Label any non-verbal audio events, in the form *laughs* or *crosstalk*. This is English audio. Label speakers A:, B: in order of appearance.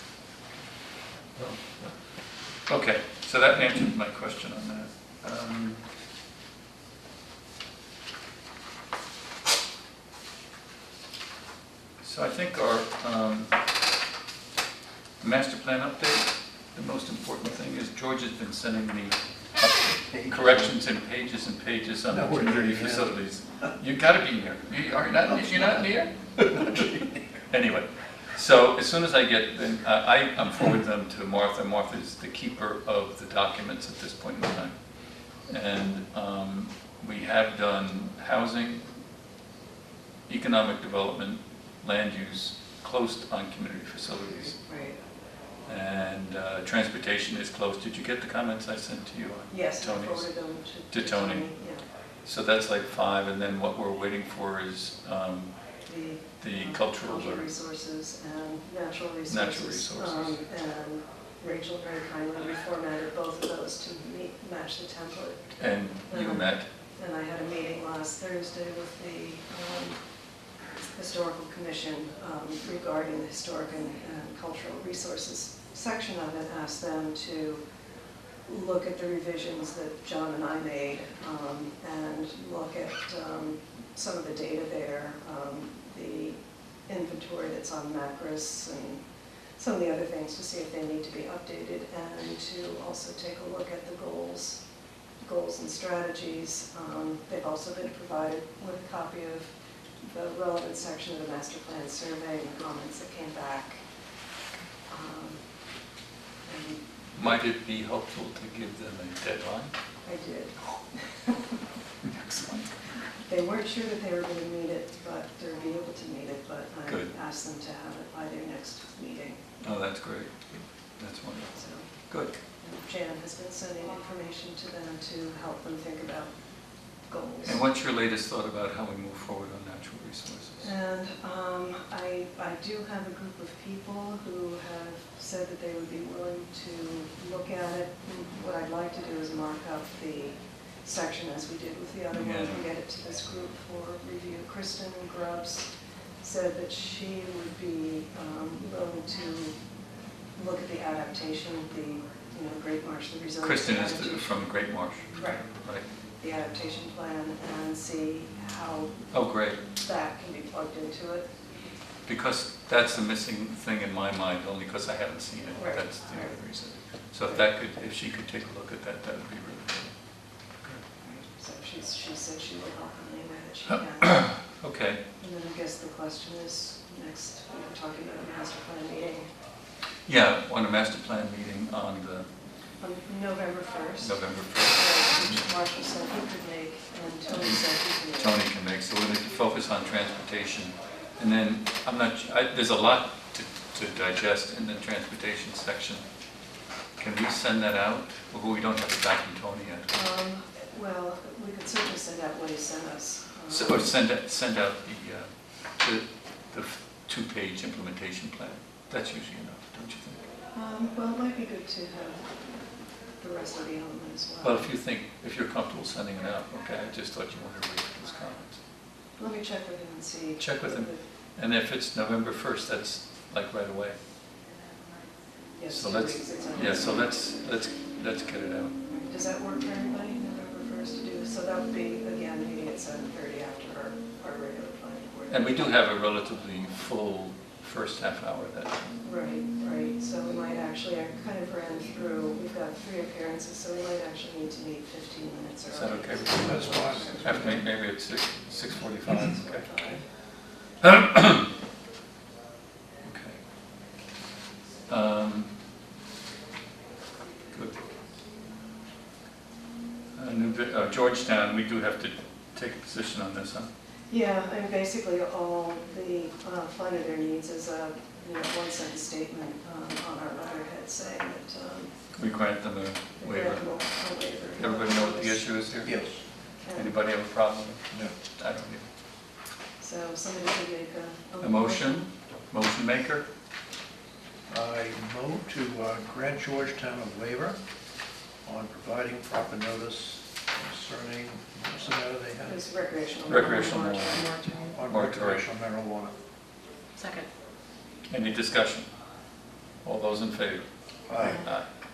A: Okay, so that answered my question on that. Um, So I think our um, master plan update, the most important thing is George has been sending me corrections and pages and pages on the
B: No, we're
A: community
B: here.
A: facilities. You gotta be near. You are not, you're not
B: *laughs*
A: near? Anyway, so as soon as I get, then I, I- I'm forwarding them to Martha. Martha's the keeper of the documents at this point in time. And, um, we have done housing, economic development, land use, closed on community facilities.
C: Right,
A: And, uh, transportation is closed. Did you get the comments I sent to you? on
C: yes, I
A: Tony's?
C: forwarded them to.
A: to Tony.
C: Yeah,
A: So that's like five, and then what we're waiting for is um,
C: the.
A: the
C: um,
A: cultural alert.
C: resources and natural resources.
A: resources.
C: Um, And Rachel very kindly reformatted both of those to meet, match the template.
A: And you met,
C: And I had a meeting last Thursday with the um, Historical Commission um, regarding the historic and and cultural resources section of it, asked them to look at the revisions that John and I made um, and look at um, some of the data there, um, the inventory that's on Macris and some of the other things to see if they need to be updated and to also take a look at the goals goals and strategies. Um, They've also been provided with a copy of the relevant section of the master plan survey and the comments that came back. Um, And
A: might it be helpful to give them a deadline?
C: I did.
A: Excellent.
C: They weren't sure that they were going to meet it, but they're be able to meet it, but
A: Good.
C: I asked them to have it by their next meeting.
A: Oh, that's great. That's wonderful.
C: So
A: Good.
C: and Jan has been sending information to them to help them think about goals.
A: And what's your latest thought about how we move forward on natural resources?
C: And um, I, I do have a group of people who have said that they would be willing to look at it. What I'd like to do is mark up the section as we did with the other ones and get it to this group for review. Kristen Grubbs said that she would be um, willing to look at the adaptation, the, you know, Great Marsh, the resilience.
A: Kristen is the-
C: adaptation-
A: from Great Marsh,
C: Right,
A: right?
C: the adaptation plan and see how
A: Oh, great,
C: that can be plugged into it.
A: because that's the missing thing in my mind, only because I haven't seen it.
C: Right.
A: That's the only reason. So if that could, if she could take a look at that, that would be really good.
C: So she's, she said she will help in any way that she can.
A: Okay.
C: And then I guess the question is, next, we we're talking about a master plan meeting
A: Yeah, on a master plan meeting on the
C: on November first.
A: November 1st,
C: Marshall said he could make, and Tony said he could make.
A: Tony can make, so we're going to focus on transportation. And then, I'm not, I- there's a lot to to digest in the transportation section. Can we send that out? Well, we don't have it back from Tony yet.
C: Um, well, we could certainly send out what he sent us. um,
A: So, or send, it- send out the, uh, the, the two-page implementation plan. That's usually enough, don't you think?
C: Um, well, it might be good to have the rest of the element as
A: Well,
C: well.
A: if you think, if you're comfortable sending it out, okay, I just thought you wanted to wait for those comments.
C: Let me check with him and see.
A: Check with him. And if it's November 1st, that's like right away.
C: Yes,
A: So
C: two
A: let's-
C: weeks, it's on-
A: Yeah, so let's, let's, let's get it out.
C: Does that work for everybody, November first to do, so that would be, again, meeting at seven thirty after our, our regular planning board.
A: And we do have a relatively full first half hour that,
C: Right, right, so we might actually, I kind of ran through, we've got three appearances, so we might actually need to meet fifteen minutes
A: is
C: early.
A: that okay? with you?
B: That's fine.
A: After, may- maybe at six, six forty-five, okay.
C: Five.
A: Okay. Um, Good. Uh, New Bri- uh, Georgetown, we do have to take a position on this, huh?
C: Yeah, and basically all the uh, fund of their needs is a, you know, one sentence statement um, on our letterhead saying that, um,
A: We grant them
C: they're
A: a waiver.
C: grateful- a waiver.
A: Everybody know what the issue is here?
B: Yes.
C: And
A: Anybody have a problem?
B: No.
A: I don't either.
C: So somebody could make a.
A: A motion, motion maker?
B: I move to uh, grant Georgetown a waiver on providing proper notice concerning, what's the matter they have?
C: It's recreational.
A: Recreational
C: marijuana.
B: On
A: Moratorium.
B: recreational marijuana.
D: Second.
A: Any discussion? All those in favor?
B: Aye.
A: Aye.